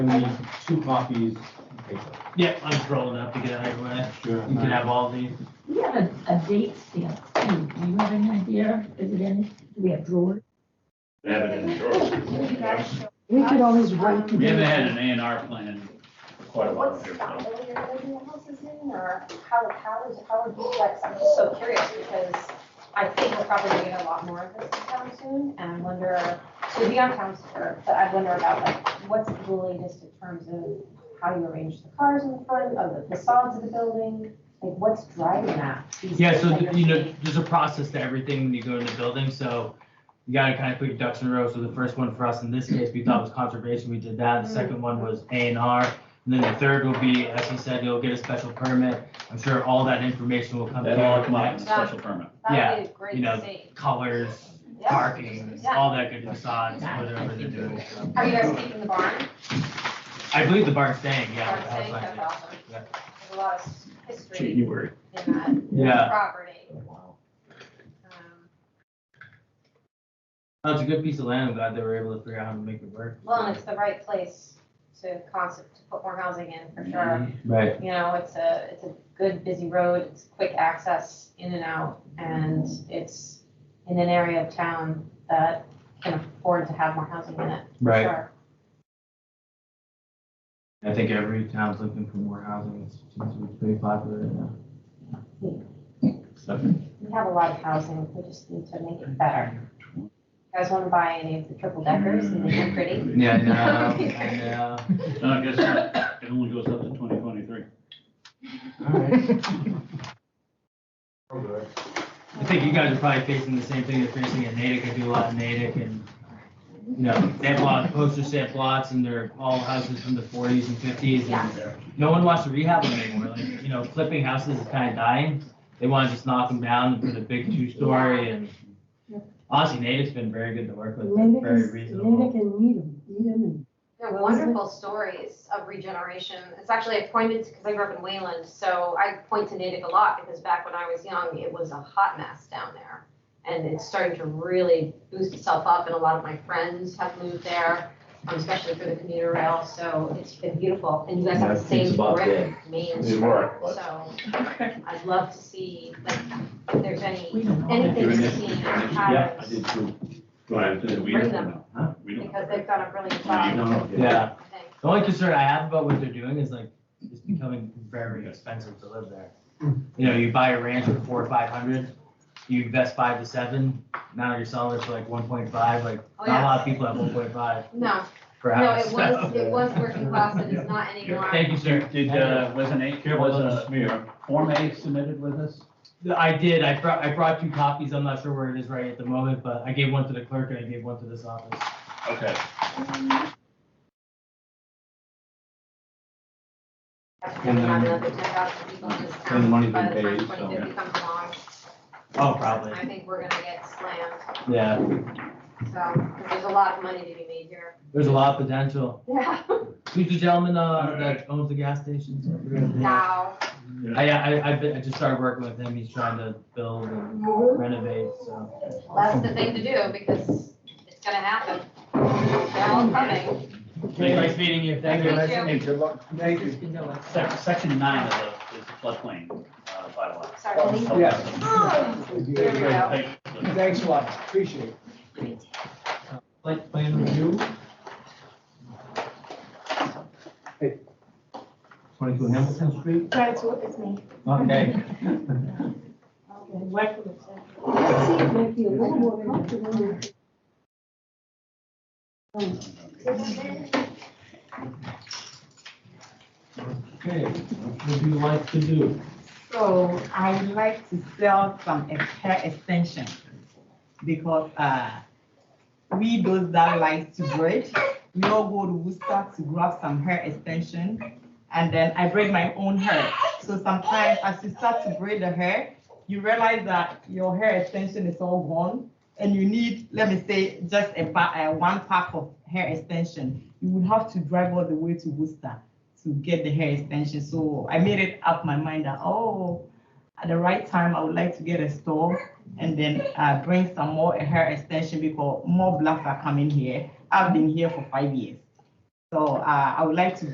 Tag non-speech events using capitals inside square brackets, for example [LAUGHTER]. need two copies. of paper. Yeah, I'm throwing up to get out of your way. Sure. You can have all these. We have a, a date stamp too. Do you have any idea? Is it in, do we have drawers? Have it in drawers. You guys show We could always wait. to We haven't do had an A and R plan in quite a while What here. style so. you're living houses in, or how, how is, how are duplex, I'm just so curious, because I think we're probably gonna get a lot more of this in town soon, and I wonder, to be on town tour, but I wonder about like, what's the latest in terms of how you arrange the cars in front of the facades of the building, like, what's driving that? these Yeah, so, days that you you're know, seeing? there's a process to everything when you go into buildings, so you gotta kind of put your ducks in a row. So the first one for us in this case, we thought was conservation, we did that. The Mm. second one was A and R. And then the third will be, as he said, you'll get a special permit. I'm sure all that information will come That'll all come out through. in a special permit. That would be great you know, to see. Colors, Yeah. parking, Yeah. all that good facades, whatever they're doing. Are you guys keeping the barn? I believe the barn's staying, yeah. Barn the house staying? might That's be. awesome. Yeah. There's a lot of s- history. January. in Yeah. that property. Wow. Um, Oh, it's a good piece of land. I'm glad they were able to figure out how to make it work. Well, and it's the right place to concept, to put more housing in, for sure. Right. You know, it's a, it's a good busy road, it's quick access in and out, and it's in an area of town that can afford to have more housing in it, for Right. sure. I think every town's looking for more housing. It seems to be pretty popular right now. We have a lot of housing, we just need to make it better. You guys wanna buy any of the triple deckers and make them pretty? Yeah, I know. [LAUGHS] I know. No, I guess not. it only goes up to twenty twenty-three. All right. We're good. I think you guys are probably facing the same thing you're facing at Natick. I do a lot in Natick and, you know, they have a lot of poster stamp lots and they're all houses from the forties and fifties and no one wants to rehab them anymore. Like, you know, flipping houses is kind of dying. They want to just knock them down and put a big two-story and honestly, Natick's been very good to work that. with. Natick Very is- reasonable. Natick and Needham, Needham and They're wonderful stories of regeneration. It's actually, I pointed, because I grew up in Wayland, so I point to Natick a lot because back when I was young, it was a hot mess down there. And it's starting to really boost itself up and a lot of my friends have moved there, um, especially through the commuter rail, so it's been beautiful. And you guys have the same brick main It's street, work, but- so I'd love to see, like, if there's We any, don't know. anything Doing to this? see in Yeah, patterns, too. we Bring don't them. know. Huh? We don't. because they've done a brilliant Yeah, you job, don't know. Yeah. I think. The only concern I have about what they're doing is like, it's becoming very expensive to live there. You know, you buy a ranch for four or five hundred, you invest five to seven, now you're selling it for like one point five, like, Oh, not a yeah. lot of people have one point five No, per No, house. it was, so. it was working class, it is not anymore. Thank you, sir. Did, uh, was an A, Careful, was those- a smear, Form A submitted with us? I did, I brought, I brought two copies, I'm not sure where it is right at the moment, but I gave one to the clerk and I gave one to this office. Okay. Have another 10,000 people in this And the money's town been by the time paid, so- 2050 comes along. Oh, probably, I think we're gonna get slammed, yeah, so, 'cause there's a lot of money to be made here. there's a lot of potential. Yeah. Who's the gentleman, uh, that owns the gas station? [LAUGHS] Now, I, I, I've been, I just started working with him, he's trying to build and renovate, so. that's the thing to do, because it's gonna happen. They're all coming. Nice meeting you, thank you. you. Thank Hey, good luck. Thank you. Sec- Section nine of the, is the floodplain, uh, bylaw. Sorry. There we go. Thank you. Thanks a lot, appreciate it. Site plan review. Hey. Twenty-two Hamilton Street, That's what it's me. okay. See, it might be a little more comfortable. Okay, what would you like to do? So I'd like to sell some ex- hair extension because uh, we those that like to braid, we all go to Worcester to grab some hair extension. And then I braid my own hair. So sometimes as you start to braid the hair, you realize that your hair extension is all gone and you need, let me say, just a pa- uh, one pack of hair extension. You would have to drive all the way to Worcester to get the hair extension. So I made it up my mind that, oh, at the right time, I would like to get a store and then uh, bring some more hair extension because more blacks are coming here. I've been here for five years. So uh, I would like to